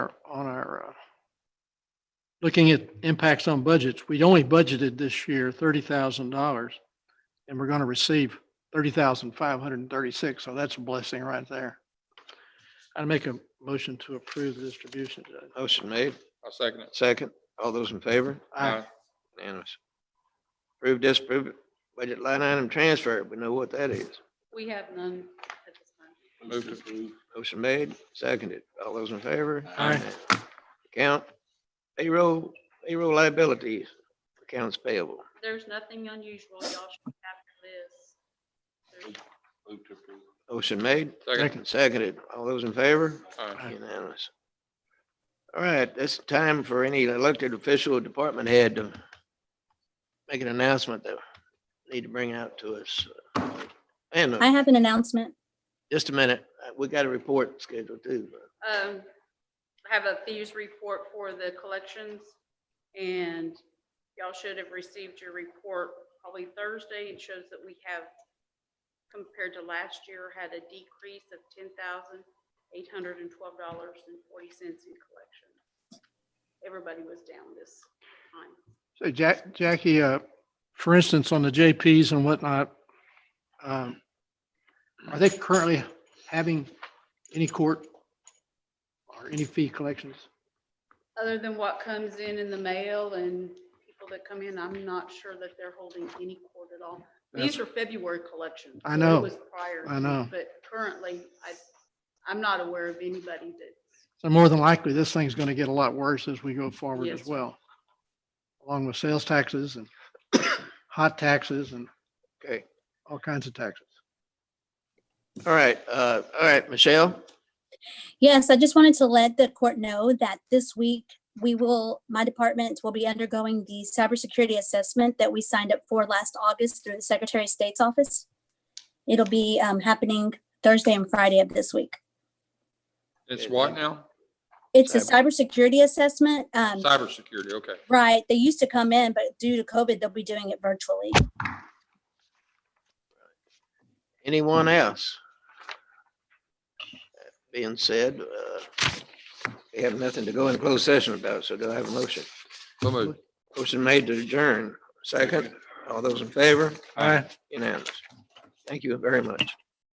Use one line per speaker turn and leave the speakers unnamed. looking at impacts on budgets, we only budgeted this year thirty thousand dollars. And we're gonna receive thirty thousand five hundred and thirty-six, so that's a blessing right there. I'd make a motion to approve the distribution, Judge.
Motion made,
I'll second it.
second. All those in favor?
Uh,
Aye.
Unanimous. Approve, disapprove, it. budget line item transfer. We know what that is.
We have none at this time.
Aye. Move to approve.
Motion made, seconded. All those in favor?
Aye.
Account payroll, payroll liabilities, accounts payable.
There's nothing unusual. Y'all should have this. There's-
Move to approve.
Motion made,
Second.
seconded. All those in favor?
Aye.
Unanimous. All right, it's time for any elected official or department head to make an announcement that they need to bring out to us. Uh, And
I have an announcement.
just a minute, uh, we got a report scheduled too.
Um, I have a thieves report for the collections and y'all should have received your report probably Thursday. It shows that we have compared to last year had a decrease of ten thousand eight hundred and twelve dollars and forty cents in collection. Everybody was down this time.
So Jack, Jackie, uh, for instance, on the JPs and whatnot, um, are they currently having any court or any fee collections?
Other than what comes in in the mail and people that come in, I'm not sure that they're holding any court at all. These are February collections.
I
so it
know.
was prior
I
to,
know.
But currently, I, I'm not aware of anybody that's,
So more than likely, this thing's gonna get a lot worse as we go forward as
Yes.
well. Along with sales taxes and hot taxes and
Okay,
all kinds of taxes.
all right, uh, all right, Michelle?
Yes, I just wanted to let the court know that this week we will, my department will be undergoing the cybersecurity assessment that we signed up for last August through the Secretary of State's office. It'll be um, happening Thursday and Friday of this week.
It's what now?
It's a cybersecurity assessment. Um,
Cybersecurity, okay.
right, they used to come in, but due to COVID, they'll be doing it virtually.
Anyone else? That Being said, uh, we have nothing to go in closed session about, so do I have a motion?
So moved.
Motion made to adjourn. Second, all those in favor?
Aye.
Unanimous. Thank you very much.